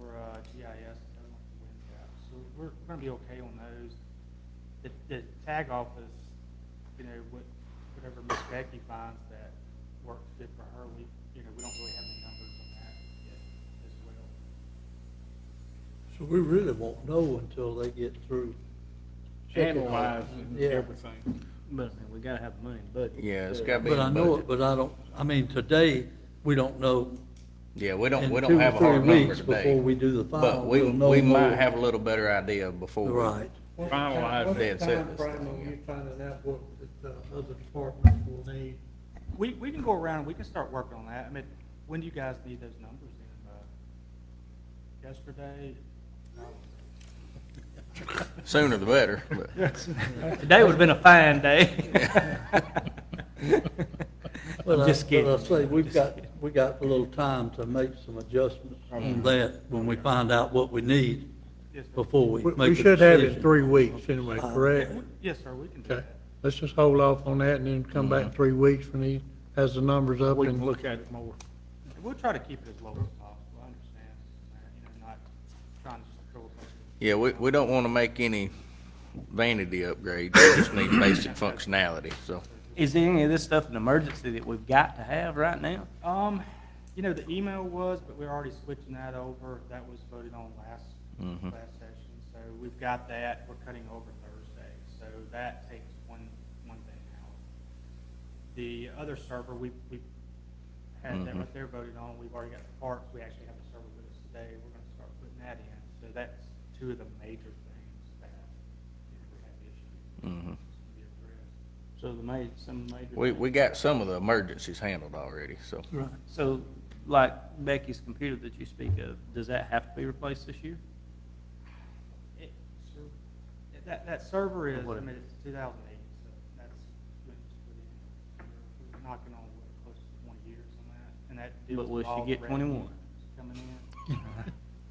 uh, we're gonna be okay on those. The, the tag office, you know, what, whatever Miss Becky finds that works good for her, we, you know, we don't really have any numbers on that yet as well. So we really won't know until they get through. checking all- Analyze and Yeah. everything. But I mean, we gotta have the money, but. Yeah, it's gotta be But in the I budget. know it, but I don't, I mean, today, we don't know. Yeah, we don't, in we two don't or have a three hard number weeks today. Before we do the final, But we, we'll know. we might more. have a little better idea before. we- Right. Finalize They had said this Brian, thing, when yeah. you finding out what the uh, other department will need, We, we can go around, we can start working on that. I mean, when do you guys need those numbers in? Uh, Yesterday? Sooner the better, but. Today would've been a fine day. But I- I'm just kidding. But I say, we've got, we got a little time to make some adjustments on that when we find out what we need Yes, sir. before we we make a we should have it decision. in three weeks anyway, Uh, correct? Yes, sir, we can do Okay, that. let's just hold off on that and then come back in three weeks when he has the numbers up We can and, look at it more. And We'll try to keep it as low as possible, I understand, you know, not trying to throw a bunch of. Yeah, we, we don't wanna make any vanity upgrades. We just need basic functionality, so. Is any of this stuff an emergency that we've got to have right now? Um, you know, the email was, but we're already switching that over, that was voted on last, Mhm. last session, so we've got that, we're cutting over Thursday, so that takes one, one thing out. The other server, we, we had that Mhm. right there voted on, we've already got the parts, we actually have the server with us today, we're gonna start putting that in, so that's two of the major things that you know, we have issues. to mhm. be addressed. So the ma, some major. We, we got some of the emergencies handled already, so. Right. So, like Becky's computer that you speak of, does that have to be replaced this year? It- That, that server is, I What? mean, it's two thousand eight, so that's, when it's put in. We're- we're knocking on wood, close to twenty years on that, and that deals But will with she all the get revenue 21? Coming in.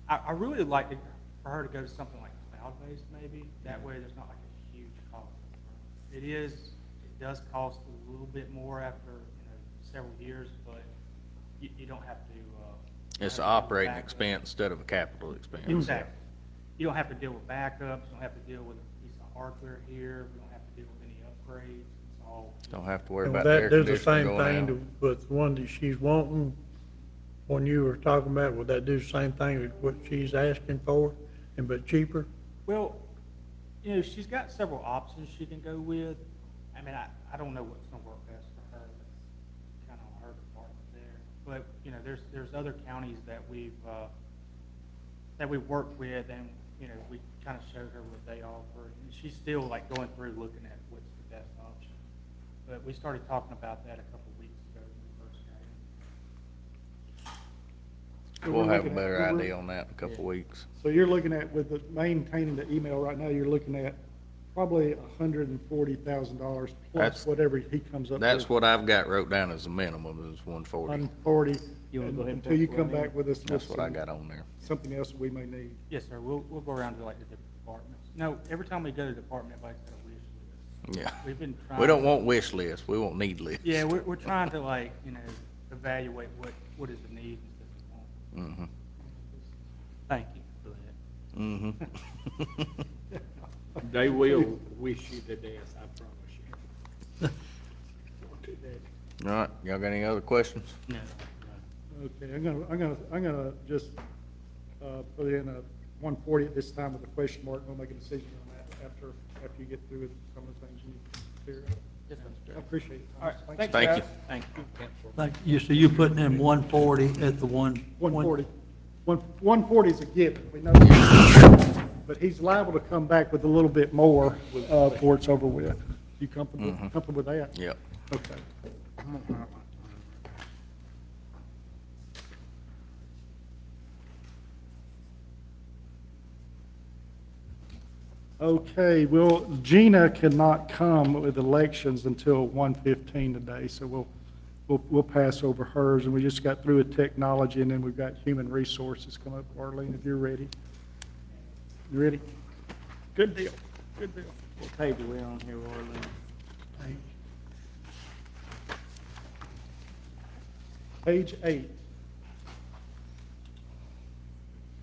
I, I really would like to, for her to go to something like cloud-based maybe, that way there's not like a huge cost. It is, it does cost a little bit more after, you know, several years, but you, you don't have to, uh. It's have to an operating back up. expense instead of a capital expense. Exactly. You don't have to deal with backups, you don't have to deal with a piece of hardware here, we don't have to deal with any upgrades, it's all. Don't have to worry and about the air that, there's the conditioner same going thing out. to- with the one that she's wanting. When you were talking about, would that do the same thing with what she's asking for and but cheaper? Well, you know, she's got several options she can go with. I mean, I, I don't know what's gonna work best for her, that's kind of her department there. But, you know, there's, there's other counties that we've, uh, that we've worked with and, you know, we kind of showed her what they offer. And she's still like going through looking at what's the best option. But we started talking about that a couple of weeks ago when we first got in. So We'll we're have a looking at- better so we're- idea on that in a couple of weeks. So you're looking at, with the, maintaining the email right now, you're looking at probably hundred and forty thousand dollars That's- plus whatever he comes up with. That's what I've got wrote down as a minimum is one forty. One forty, You wanna go ahead and until you pencil come that in? back with us with That's what I some- got on there. something else we may need. Yes, sir, we'll, we'll go around to like the different departments. No, every time we go to department, everybody's got a wish list. Yeah. We've been We don't trying- want wish lists. We want need lists. Yeah, we're, we're trying to like, you know, evaluate what, what is the need instead of want. Mm-hmm. Thank you for that. Mm-hmm. They will wish you the death, I promise you. All right, y'all got any other questions? No. Okay, I'm gonna, I'm gonna, I'm gonna just, uh, put in a one forty at this time with a question mark, we'll make a decision on that after, after you get through with some of the things you need to clear Yes, sir. up. I appreciate it. All right, Thank you. Thank you. Like, you, so you're putting in one forty at the one? One forty. One, one forty is a given, we know. that. But he's liable to come back with a little bit more, uh, before it's over with. You comfortable, comfortable with that? Yep. Okay. Okay, well, Gina cannot come with elections until 1:15 today, so we'll, we'll, we'll pass over hers. And we just got through with technology, and then we've got human resources come up, Arlene, if you're ready. You ready? Good deal, good deal. What page are we on here, Orland? Page eight.